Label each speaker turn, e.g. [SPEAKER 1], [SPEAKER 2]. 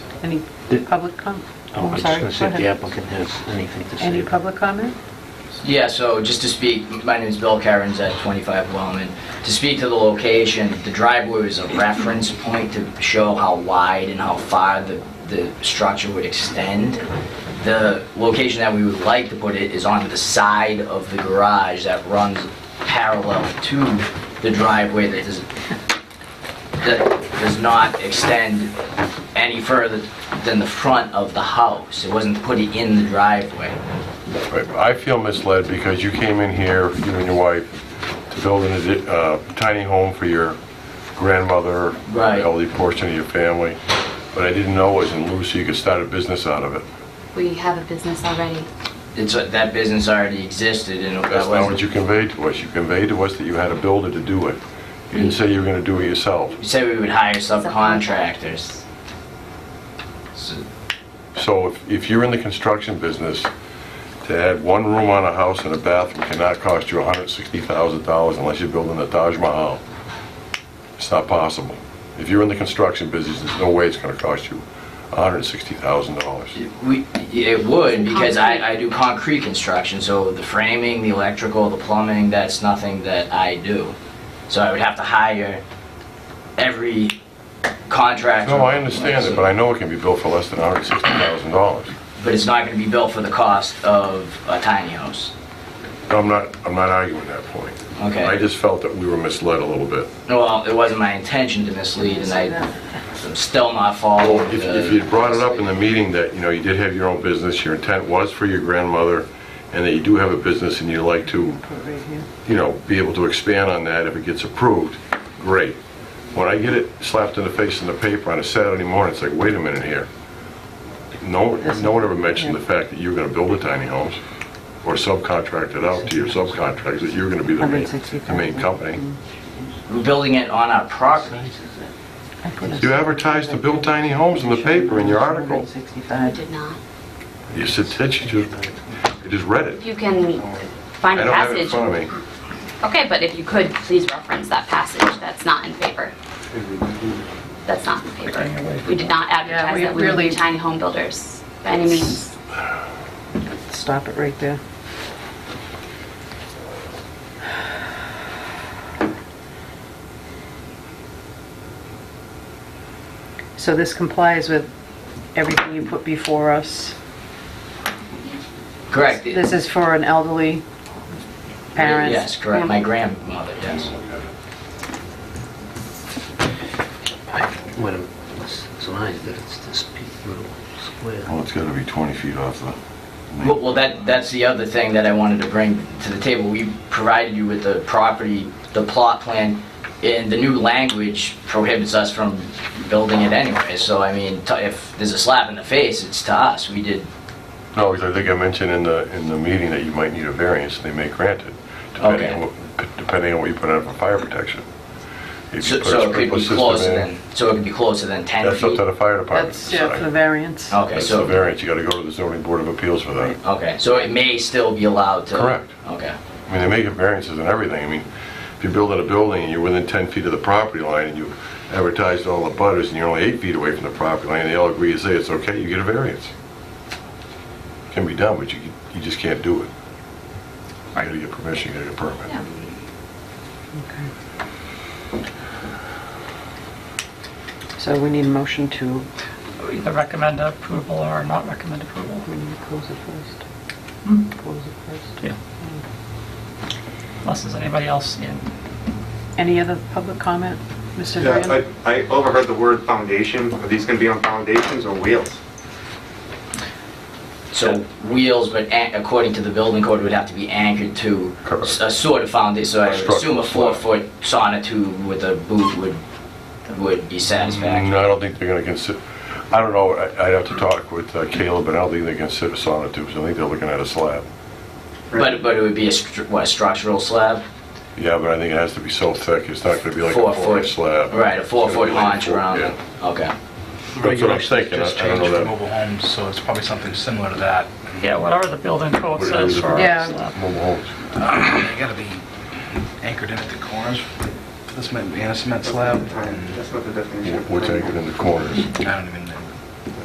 [SPEAKER 1] Any
[SPEAKER 2] The-
[SPEAKER 1] public com,
[SPEAKER 2] Oh, I
[SPEAKER 1] I'm
[SPEAKER 2] was
[SPEAKER 1] sorry,
[SPEAKER 2] going
[SPEAKER 1] go
[SPEAKER 2] to say, if the
[SPEAKER 1] ahead.
[SPEAKER 2] applicant has anything to say.
[SPEAKER 1] Any
[SPEAKER 2] about-
[SPEAKER 1] public comment?
[SPEAKER 3] Yeah, so just to speak, my name is Bill Cairns at 25 Wellman. To speak to the location, the driveway was a reference point to show how wide and how far the, the structure would extend. The location that we would like to put it is on the side of the garage that runs parallel to the driveway that is, that does not extend any further than the front of the house. It wasn't put in the driveway.
[SPEAKER 4] I feel misled because you came in here, you and your wife, to build an addi- uh, tiny home for your grandmother,
[SPEAKER 3] Right.
[SPEAKER 4] elderly portion of your family, but I didn't know it was in lieu, so you could start a business out of it.
[SPEAKER 5] We have a business already.
[SPEAKER 3] It's, that business already existed and that
[SPEAKER 4] That's not
[SPEAKER 3] wasn't,
[SPEAKER 4] what
[SPEAKER 3] you
[SPEAKER 4] you conveyed to us. You conveyed to us that you had a builder to do it. You didn't say you were going to do it yourself.
[SPEAKER 3] said we would hire subcontractors. So-
[SPEAKER 4] So if- if you're in the construction business, to add one room on a house and a bathroom cannot cost you $160,000 unless you're building the Taj Mahal. It's not possible. If you're in the construction business, there's no way it's going to cost you $160,000.
[SPEAKER 3] We, it would, because I, I do concrete construction, so the framing, the electrical, the plumbing, that's nothing that I do. So I would have to hire every contractor.
[SPEAKER 4] No, I understand it, but I know it can be built for less than $160,000.
[SPEAKER 3] But it's not gonna be built for the cost of a tiny house.
[SPEAKER 4] No, I'm not, I'm not arguing that point.
[SPEAKER 3] Okay.
[SPEAKER 4] I just felt that we were misled a little bit.
[SPEAKER 3] Well, it wasn't my intention to mislead and I, I'm still not following.
[SPEAKER 4] Well, if,
[SPEAKER 3] the-
[SPEAKER 4] if you brought it up in the meeting that, you know, you did have your own business, your intent was for your grandmother, and that you do have a business and you like to, you know, be able to expand on that if it gets approved, great. When I get it slapped in the face in the paper on a Saturday morning, it's like, wait a minute here. No, no one ever mentioned the fact that you were gonna build a tiny homes or subcontract it out to your subcontractors, that you're gonna be the main, the main company.
[SPEAKER 1] Mm.
[SPEAKER 3] We're building it on our property.
[SPEAKER 4] You advertised to build tiny homes in the paper in your article.
[SPEAKER 5] I did not.
[SPEAKER 4] You said, that you just, I just read it.
[SPEAKER 5] You can find
[SPEAKER 4] I
[SPEAKER 5] a
[SPEAKER 4] don't have it in
[SPEAKER 5] passage.
[SPEAKER 4] front of me.
[SPEAKER 5] Okay, but if you could, please reference that passage. That's not in favor. That's not in favor. We did not
[SPEAKER 1] Yeah,
[SPEAKER 5] advertise
[SPEAKER 1] we
[SPEAKER 5] that we would
[SPEAKER 1] really-
[SPEAKER 5] be tiny home builders by any means.
[SPEAKER 1] Stop it right there. So this complies with everything you put before us.
[SPEAKER 3] Correct.
[SPEAKER 1] This is for an elderly parent.
[SPEAKER 3] Yes, correct, my grandmother, yes.
[SPEAKER 2] When it's designed, that it's this big little square.
[SPEAKER 4] Well, Oh, it's gotta be 20 feet off the...
[SPEAKER 3] Well, well, that, that's the other thing that I wanted to bring to the table. We provided you with the property, the plot plan, and the new language prohibits us from building it anyway. So, I mean, t- if there's a slap in the face, it's to us. We did,
[SPEAKER 4] No, because I think I mentioned in the, in the meeting that you might need a variance, and they may grant it, depending
[SPEAKER 3] Okay.
[SPEAKER 4] on, what- depending on what you put out for fire protection. If
[SPEAKER 3] so
[SPEAKER 4] you put a
[SPEAKER 3] so it could
[SPEAKER 4] sprinkler
[SPEAKER 3] be
[SPEAKER 4] system
[SPEAKER 3] closer
[SPEAKER 4] in,
[SPEAKER 3] than, so it could be closer than 10
[SPEAKER 4] That's up
[SPEAKER 3] feet?
[SPEAKER 4] to the fire department to
[SPEAKER 1] That's yeah, for the
[SPEAKER 4] decide.
[SPEAKER 1] variance.
[SPEAKER 3] Okay,
[SPEAKER 4] That's the
[SPEAKER 3] so,
[SPEAKER 4] variance, you gotta go to the zoning board of appeals for that.
[SPEAKER 3] okay, so it may still be allowed to?
[SPEAKER 4] Correct.
[SPEAKER 3] Okay.
[SPEAKER 4] I mean, they make variances and everything. I mean, if you're building a building and you're within 10 feet of the property line and you advertise to all the butters and you're only eight feet away from the property line, they all agree to say it's okay, you get a variance. Can be done, but you, you just can't do it. You gotta get permission, you gotta get a permit.
[SPEAKER 1] So we need a motion to,
[SPEAKER 6] either recommend approval or not recommend approval.
[SPEAKER 1] we need to close it first. Close it first.
[SPEAKER 6] Unless there's anybody else in.
[SPEAKER 1] Any other public comment, Mr.
[SPEAKER 7] Yeah,
[SPEAKER 1] Duran?
[SPEAKER 7] I I overheard the word foundation. Are these going to be on foundations or wheels?
[SPEAKER 3] So wheels, but an- according to the building code, would have to be anchored to
[SPEAKER 4] Correct.
[SPEAKER 3] a sort of foundation, so I would
[SPEAKER 4] Structural
[SPEAKER 3] assume a
[SPEAKER 4] slab.
[SPEAKER 3] four-foot sonotube with a boot would, would be
[SPEAKER 4] No,
[SPEAKER 3] satisfactory.
[SPEAKER 4] Mm, I don't think they're gonna consider, I don't know, I- I'd have to talk with uh, Caleb, but I don't think they consider sonotubes. I think they're looking at a slab.
[SPEAKER 3] But, but it would be a, stru- what, a structural slab?
[SPEAKER 4] Yeah, but I think it has to be so thick, it's not gonna be like a
[SPEAKER 3] Four-foot.
[SPEAKER 4] four-inch slab.
[SPEAKER 3] Right, a four-foot
[SPEAKER 4] It's gonna be like
[SPEAKER 3] haunch around
[SPEAKER 4] yeah.
[SPEAKER 3] it, okay.
[SPEAKER 4] That's what I'm
[SPEAKER 8] regulations
[SPEAKER 4] thinking, I
[SPEAKER 8] just
[SPEAKER 4] I don't
[SPEAKER 8] changed
[SPEAKER 4] know
[SPEAKER 8] for
[SPEAKER 4] that.
[SPEAKER 8] mobile homes, so it's probably something similar to that.
[SPEAKER 6] Yeah, whatever the building code
[SPEAKER 4] Whatever
[SPEAKER 6] says
[SPEAKER 4] the-
[SPEAKER 6] for
[SPEAKER 1] Yeah.
[SPEAKER 6] our slab.
[SPEAKER 4] Mobile homes.
[SPEAKER 8] They gotta be anchored in at the corners. This might be a cement slab, and
[SPEAKER 7] That's not the definition.
[SPEAKER 4] What's anchored in the corners?
[SPEAKER 8] I don't even